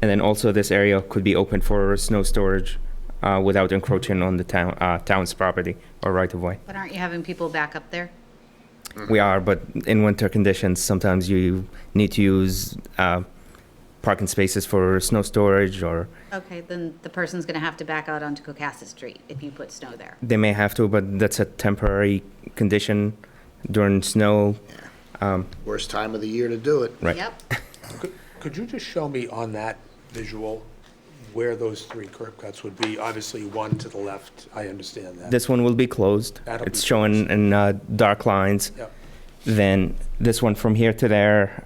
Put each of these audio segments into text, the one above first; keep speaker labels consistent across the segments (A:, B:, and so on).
A: And then also this area could be open for snow storage uh, without encroaching on the town, uh, town's property or right of way.
B: But aren't you having people back up there?
C: Mm-hmm.
A: We are, but in winter conditions, sometimes you need to use uh, parking spaces for snow storage or
B: Okay, then the person's going to have to back out onto Cocasset Street if you put snow there.
A: they may have to, but that's a temporary condition during snow.
D: Worst time of the year to do it.
A: Right.
B: Yep.
C: Could- Could you just show me on that visual where those three curb cuts would be? Obviously, one to the left, I understand that.
A: This one will be closed.
C: That'll be
A: It's shown in uh, dark lines.
C: Yep.
A: Then this one from here to there,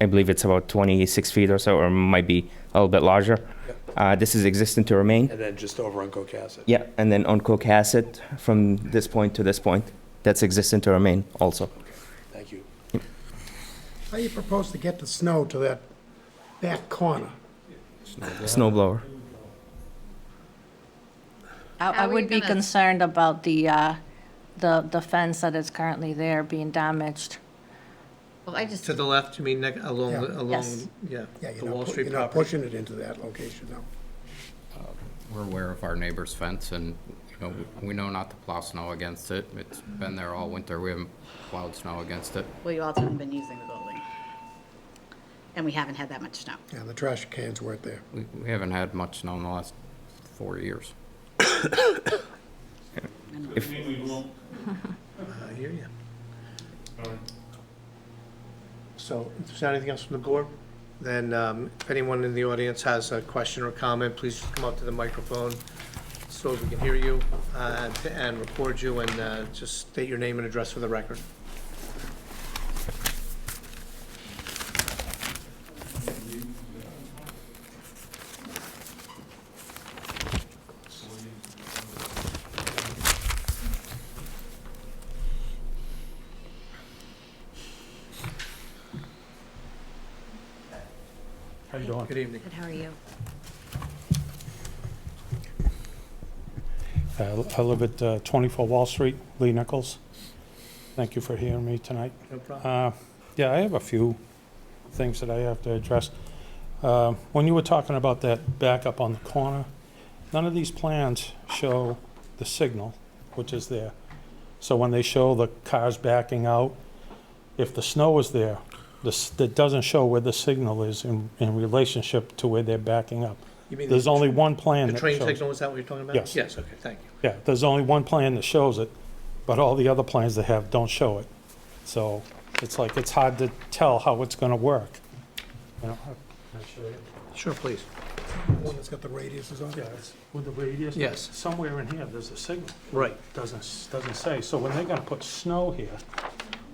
A: I believe it's about 26 feet or so, or might be a little bit larger.
C: Yep.
A: Uh, This is existing to remain.
C: And then just over on Cocasset?
A: Yeah, and then on Cohasset, from this point to this point, that's existing to remain also.
C: Thank you.
E: How you propose to get the snow to that back corner?
A: Snow blower.
B: How
F: I, I
B: are you
F: would be
B: gonna-
F: concerned about the, uh, the, the fence that is currently there being damaged.
B: Well, I just,
G: To the left, you mean, neg- along,
E: Yeah.
G: the-
F: Yes.
G: along, yeah,
E: Yeah,
G: the
E: you're
G: Wall
E: not, pu-
G: Street
E: you're not
G: property.
E: pushing it into that location, no.
H: We're aware of our neighbor's fence, and, you know, we know not to plow snow against it. It's been there all winter. We haven't plowed snow against it.
B: well, you also haven't been using the building. And we haven't had that much snow.
E: Yeah, the trash cans weren't there.
H: We we haven't had much snow in the last four years.
G: I hear you.
E: So,
G: If there's anything else from the board, then um, if anyone in the audience has a question or comment, please just come up to the microphone so we can hear you uh, and record you and uh, just state your name and address for the record. Good evening.
B: Good, how are you?
I: Uh, I live at uh, 24 Wall Street, Lee Nichols. Thank you for hearing me tonight.
G: No problem.
I: Uh, Yeah, I have a few things that I have to address. Uh, When you were talking about that backup on the corner, none of these plans show the signal, which is there. So when they show the cars backing out, if the snow is there, this, that doesn't show where the signal is in, in relationship to where they're backing up.
G: You mean
I: There's
G: the-
I: only one plan
G: The
I: that
G: train
I: shows it.
G: signal, is that what you're talking about?
I: Yes.
G: Yes, okay, thank you.
I: Yeah, there's only one plan that shows it, but all the other plans they have don't show it. So it's like, it's hard to tell how it's gonna work. You know,
G: Sure, please.
E: the one that's got the radiuses on
I: yeah,
E: it?
I: it's with the radius.
G: Yes.
I: Somewhere in here, there's a signal,
G: Right.
I: doesn't, doesn't say. So when they're gonna put snow here,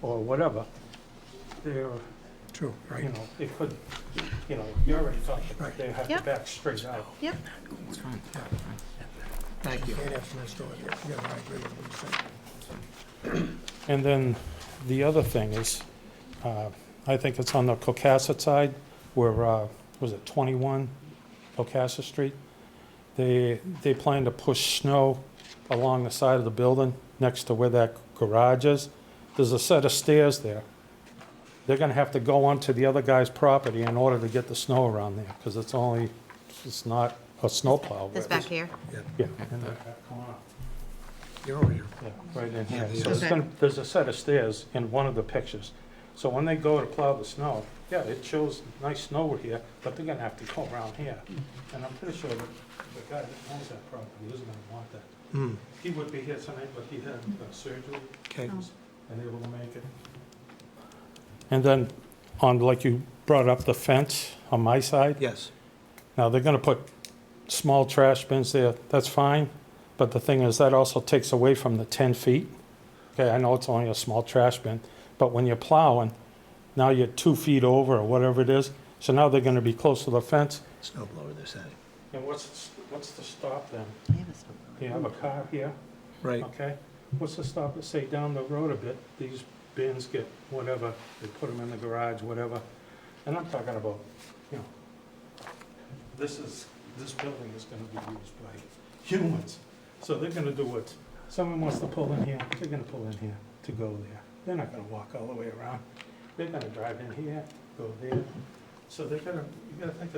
I: or whatever, they're,
E: True, right.
I: you know, it could, you know, you already talked, about they have to
B: Yep.
I: back straight out.
B: Yep.
G: Thank you.
E: Can't have snow stored there. Yeah, I agree with what you're saying.
I: And then the other thing is, uh, I think it's on the Cocasset side where, uh, was it 21 Cocasset Street? They, they plan to push snow along the side of the building next to where that garage is. There's a set of stairs there. They're going to have to go onto the other guy's property in order to get the snow around there because it's only, it's not a snowplow.
B: This back here?
I: Yeah, in that back corner.
G: You're over here.
I: Yeah, right in here. So
B: Okay.
I: it's gonna, there's a set of stairs in one of the pictures. So when they go to plow the snow, yeah, it shows nice snow here, but they're gonna have to go around here. And I'm pretty sure that the guy that owns that property isn't gonna want that. He would be here tonight, but he had uh, surgery
G: Hmm, Okay.
I: unable to make it. And then on, like you brought up the fence on my side.
G: Yes.
I: Now, they're gonna put small trash bins there, that's fine, but the thing is, that also takes away from the ten feet. Okay, I know it's only a small trash bin, but when you're plowing, now you're two feet over or whatever it is, so now they're gonna be close to the fence.
G: Snow blower this side.
I: And what's, what's the stop then?
B: I have a snow blower.
I: You have a car here,
G: Right.
I: okay? What's the stop, Let's say down the road a bit, these bins get whatever, they put them in the garage, whatever. And I'm talking about, you know, this is, this building is gonna be used by humans. So they're gonna do what, someone wants to pull in here, they're gonna pull in here to go there. They're not gonna walk all the way around. They're gonna drive in here, go there. So they're gonna, you gotta think of